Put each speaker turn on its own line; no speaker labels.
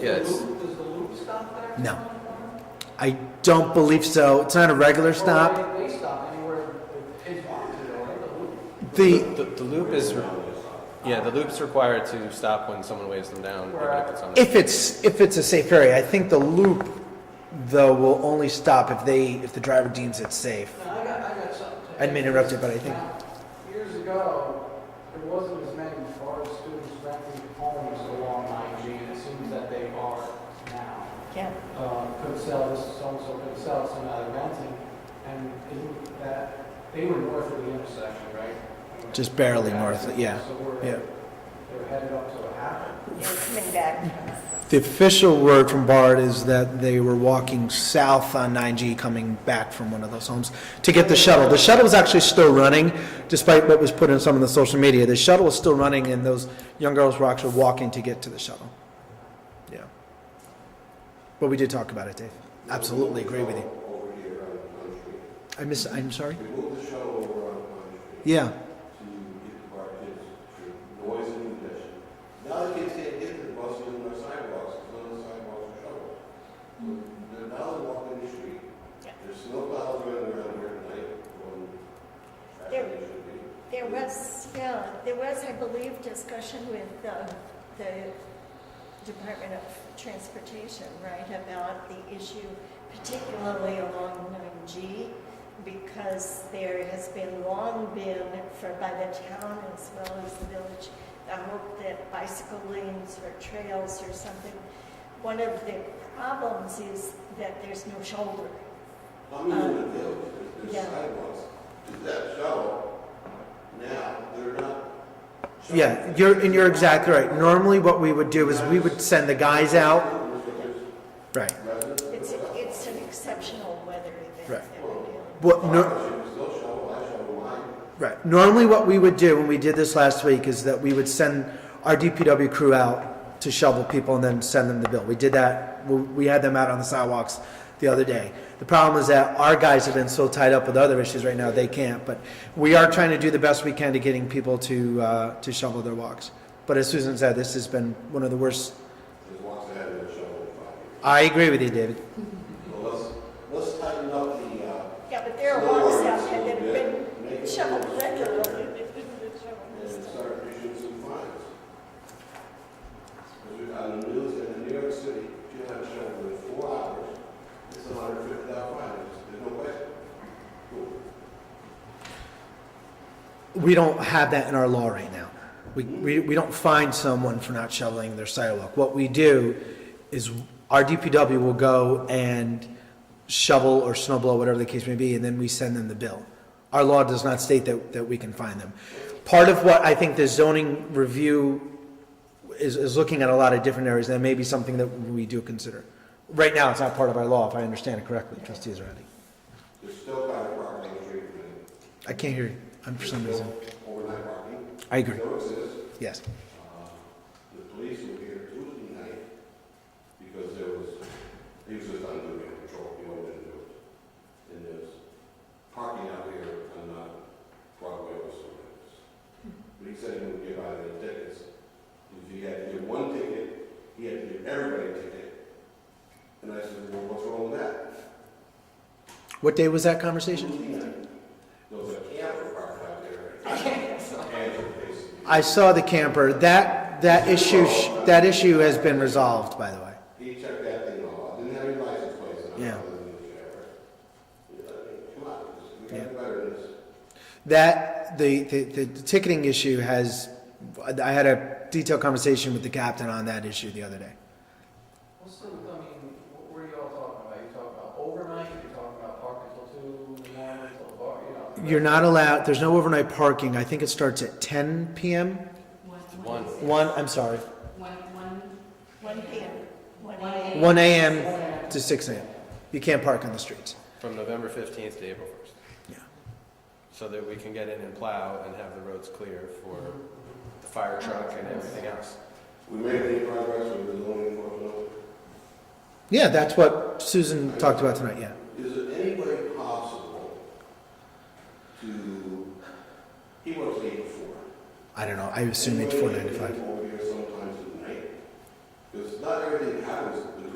Yeah, it's,
Does the loop stop there?
No. I don't believe so. It's not a regular stop.
Or they they stop anywhere they want to, though, right? The loop-
The,
the, the loop is, re- yeah, the loop's required to stop when someone waves them down, even if it's on. a-
if it's, if it's a safe area, I think the loop, though, will only stop if they, if the driver deems it safe.
Now, I got, I got something to.
I didn't mean to interrupt you, but I think,
Now, Years ago, there wasn't as many bar students renting homes along IG, and it seems that they are now.
Yeah.
Uh, could sell this, so-and-so could sell, so now they're renting, and isn't that, they were north of the intersection, right?
Just barely north, yeah,
So we're,
yeah.
they're headed up to a half.
You're coming back.
the official word from BART is that they were walking south on 9G coming back from one of those homes to get the shuttle. The shuttle was actually still running, despite what was put in some of the social media. The shuttle was still running, and those young girls were actually walking to get to the shuttle. Yeah. But we did talk about it, Dave. Absolutely agree with you. I miss, I'm sorry? Yeah.
Now the kids can't get to the bus using our sidewalks, because none of the sidewalks are shoveled. So They're now they're walking the street.
Yeah.
There's snowplows running around here tonight, going faster than they should be.
There was, yeah, there was, I believe, discussion with um, the Department of Transportation, right, about the issue particularly along 9G, because there has been long been, for by the town as well as the village, the hope that bicycle lanes or trails or something. One of the problems is that there's no shoulder.
How many
Um,
in the village, there's
yeah.
there's sidewalks, is that shovel? Now, they're not. shoveling.
Yeah, you're, and you're exactly right. Normally, what we would do is we would send the guys out. Right.
It's, it's an exceptional weather event.
Right.
that we're dealing
What, no, Right. Normally, what we would do, when we did this last week, is that we would send our DPW crew out to shovel people and then send them the bill. We did that, we we had them out on the sidewalks the other day. The problem is that our guys have been so tied up with other issues right now, they can't. But we are trying to do the best we can to getting people to, uh, to shovel their walks. But as Susan said, this has been one of the worst. I agree with you, David.
Let's, let's tighten up the, uh,
Yeah, but there are walks out there that have been shoveled regularly. They've been shoveled
and
this time.
start issuing some fines. Because we, on the news, in New York City, if you have a shovel in four hours, it's a hundred fifty dollar fine, there's no way. Cool.
we don't have that in our law right now. We, we, we don't find someone for not shoveling their sidewalk. What we do is our DPW will go and shovel or snow blow, whatever the case may be, and then we send them the bill. Our law does not state that, that we can find them. Part of what I think the zoning review is, is looking at a lot of different areas, that may be something that we do consider. Right now, it's not part of our law, if I understand it correctly, trustee Israedi.
There's still private property on the street, and
I can't hear you, I'm for some reason.
overnight parking,
I agree,
still exists.
yes.
The police were here Tuesday night because there was, he was just under the control, you know, and there was, and there's parking out here on uh, Broadway or something. But he said he would give out any tickets. If he had to give one ticket, he had to give everybody a ticket. And I said, well, what's wrong with that?
What day was that conversation?
Tuesday night, there was a camper parked out there. And the police.
I saw the camper. That, that issue, sh- that issue has been resolved, by the way.
He checked that thing all out, didn't have any license plates on it.
Yeah.
other than the sheriff. Yeah, I mean, Come on, we gotta do better than this.
That, the, the, the ticketing issue has, I had a detailed conversation with the captain on that issue the other day.
What's the, I mean, what were you all talking about? You talking about overnight, you talking about parking till two in the morning, till bar, you know?
You're not allowed, there's no overnight parking. I think it starts at ten PM?
One,
One.
One, I'm sorry,
one, one,
One PM, one
One
AM.
one AM to six AM. You can't park on the streets.
From November fifteenth to April first.
Yeah.
So that we can get in and plow and have the roads clear for the fire truck and everything else.
We made any progress with the zoning enforcement?
Yeah, that's what Susan talked about tonight, yeah.
Is it any way possible to, he works eight to four.
I don't know, I assume it's four ninety-five.
Over here sometimes at night, because not everything think happens